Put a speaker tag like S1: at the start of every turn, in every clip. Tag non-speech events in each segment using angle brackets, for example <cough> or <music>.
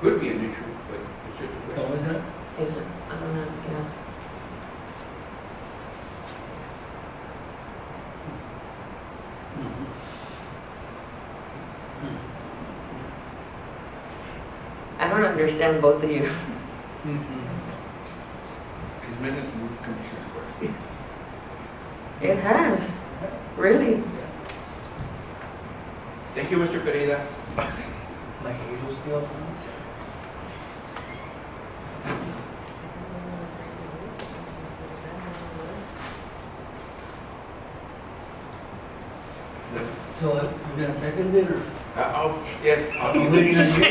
S1: could be an issue, but it's just a question.
S2: Oh, isn't it?
S3: Is it, I don't know, yeah. I don't understand both of you.
S1: His minutes move Commissioner's Court.
S3: It has, really.
S1: Thank you, Mr. Pereira.
S2: My haters feel things. So uh, you're gonna second it or?
S1: Uh, oh, yes, I'll,
S2: I'm waiting on you.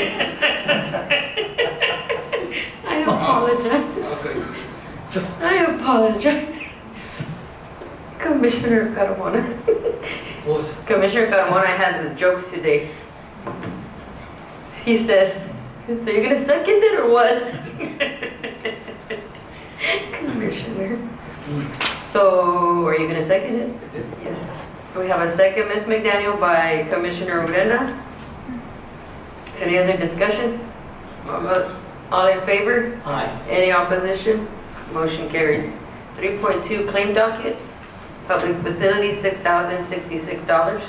S3: I apologize.
S1: I'll say,
S3: I apologize. Commissioner Carmona.
S2: Both.
S3: Commissioner Carmona has his jokes today. He says, so you're gonna second it or what? <laughs> Commissioner. So are you gonna second it? Yes. We have a second, Ms. McDaniel, by Commissioner Urenda. Any other discussion? All in favor?
S2: Aye.
S3: Any opposition? Motion carries. 3.2 claim docket, public facility, $6,066.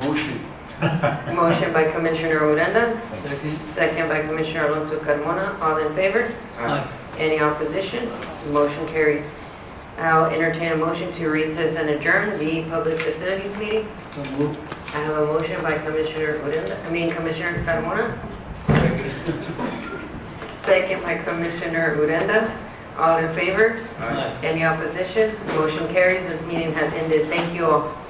S1: motion.
S3: Motion by Commissioner Odena,
S2: Second?
S3: second by Commissioner Alonso Carmona. All in favor?
S1: Uh,
S3: Any opposition? Motion carries. I'll entertain a motion to recess and adjourn the public facilities meeting.
S2: So move.
S3: I have a motion by Commissioner Odena, I mean Commissioner Carmona.
S1: second.
S3: Second by Commissioner Urenda. All in favor?
S1: Aye.
S3: Any opposition? Motion carries. This meeting has ended. Thank you all.